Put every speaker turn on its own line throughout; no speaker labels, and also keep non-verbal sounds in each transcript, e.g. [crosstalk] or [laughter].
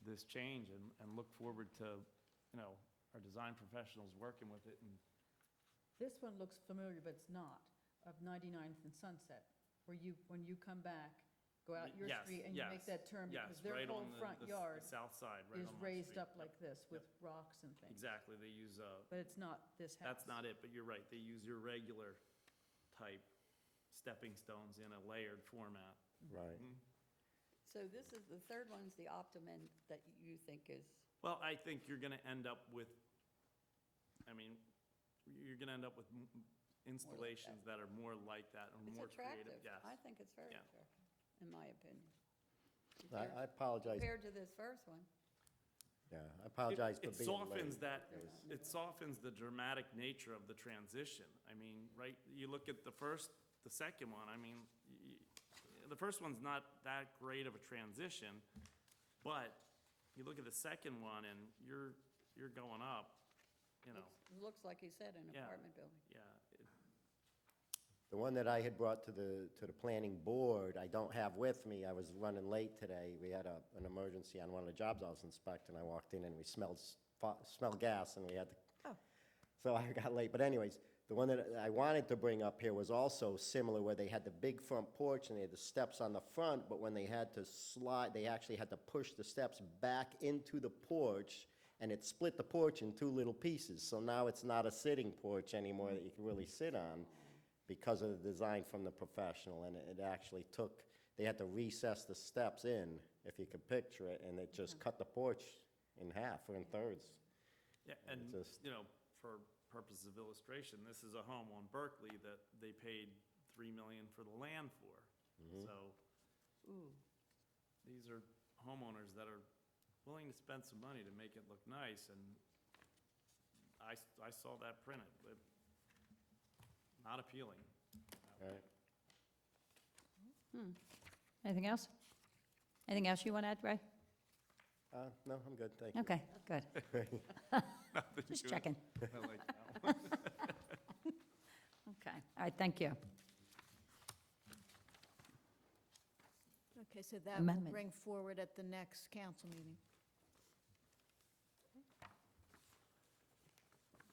this change and, and look forward to, you know, our design professionals working with it and
This one looks familiar, but it's not, of 99th and Sunset, where you, when you come back, go out your
Yes,
street and you
yes,
make that turn because
yes,
their
right on
whole
the-
front
the s-
yard
The south side, right on
is
my
raised
street.
up
Yep,
like this with rocks and things.
Exactly, they use, uh,
But it's not this house.
that's not it, but you're right, they use your regular type stepping stones in a layered format.
Right.
So this is, the third one's the optimum end that you think is,
Well, I think you're gonna end up with, I mean, you're gonna end up with m- m- installations that are more like that or
it's
more creative,
attractive.
yes.
I think it's very
Yeah.
attractive, in my opinion.
I I apologize,
Compared to this first one.
yeah, I
It-
apologize for being
It
late.
softens that,
It was-
it softens the dramatic nature of the transition. I mean, right, you look at the first, the second one, I mean, y- y- the first one's not that great of a transition, but you look at the second one and you're, you're going up, you know,
Looks- Looks like you said, an
Yeah.
apartment building.
yeah. it-
The one that I had brought to the, to the planning board, I don't have with me, I was running late today. We had a, an emergency on one of the jobs I was inspecting, I walked in and we smelled, s- fa- smelled gas and we had to, so I [laughs] got late, but anyways, the one that I wanted to bring up here was also similar, where they had the big front porch and they had the steps on the front, but when they had to slide, they actually had to push the steps back into the porch, and it split the porch in two little pieces, so now it's not a sitting porch anymore that you can really sit on, because of the design from the professional, and it it actually took, they had to recess the steps in, if you could picture it, and it just cut the porch in half or in thirds.
Yeah,
And
and,
just-
you know, for purposes of illustration, this is a home on Berkeley that they paid three million for the land for.
Mm-hmm.
So,
Ooh,
these are homeowners that are willing to spend some money to make it look nice, and I, s- I saw that printed, but not appealing.
Right.
Hmm. Anything else? Anything else you want to add, Ray?
Uh, no, I'm good, thank you.
Okay,
[laughs]
good.
[laughs]
Just checking. Okay, all right, thank you.
Okay, so that will
Amendment.
bring forward at the next council meeting.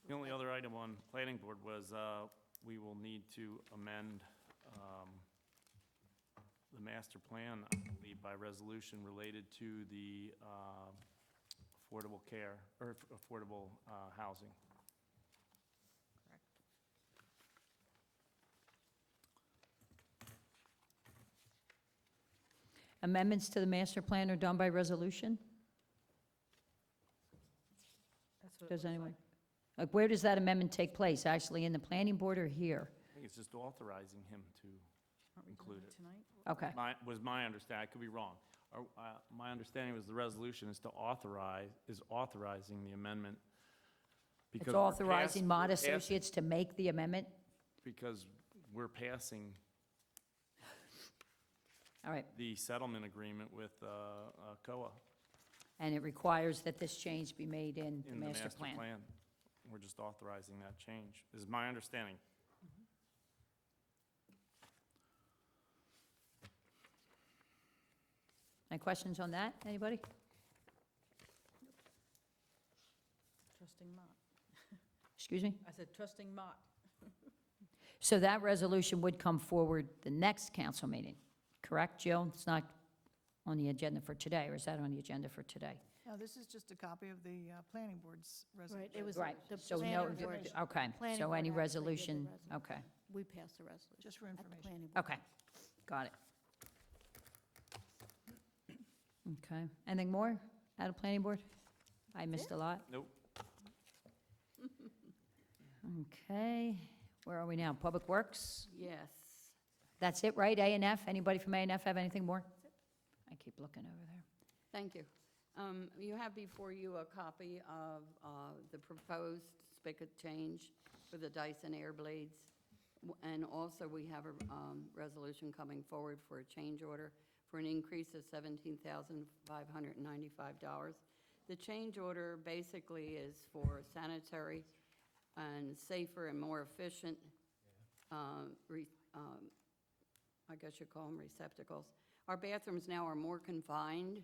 The only other item on planning board was, uh, we will need to amend, um, the master plan, I believe, by resolution related to the, uh, affordable care, or affordable, uh, housing.
Correct.
Amendments to the master plan are done by resolution? Does anyone? Like, where does that amendment take place? Actually, in the planning board or here?
I think it's just authorizing him to
Aren't we doing
include
it
it.
Tonight?
Okay,
My, was my understanding, I could be wrong. Or, uh, My understanding was the resolution is to authorize, is authorizing the amendment.
it's
because we're pass-
authorizing Mott
we're pass-
Associates to make the amendment?
Because we're passing
All right,
the settlement agreement with uh, uh, COA
and it requires that this change be made in the
in the
master
master
plan.
plan. We're just authorizing that change, is my understanding.
Any questions on that, anybody?
Trusting Mott.
Excuse me?
I said trusting Mott.
So that resolution would come forward the next council meeting, correct, Jill? It's not on the agenda for today, or is that on the agenda for today?
No, this is just a copy of the uh, planning board's resolution.
Right, it was
Right,
the
so no,
planning board.
okay,
Planning
so
board actually
any
did the
resolution,
resolution.
okay,
We passed the resolution.
Just for
at the
information.
planning board.
okay, got it. Okay, anything more out of planning board? I missed a lot.
Nope.
Okay, where are we now? Public Works?
yes.
That's it, right? A and F? Anybody from A and F have anything more? I keep looking over there.
Thank you. Um, You have before you a copy of uh, the proposed spigot change for the Dyson Air Blades. W- And also, we have a um, resolution coming forward for a change order for an increase of $17,595. The change order basically is for sanitary and safer and more efficient um, re- um, I guess you call them receptacles. Our bathrooms now are more confined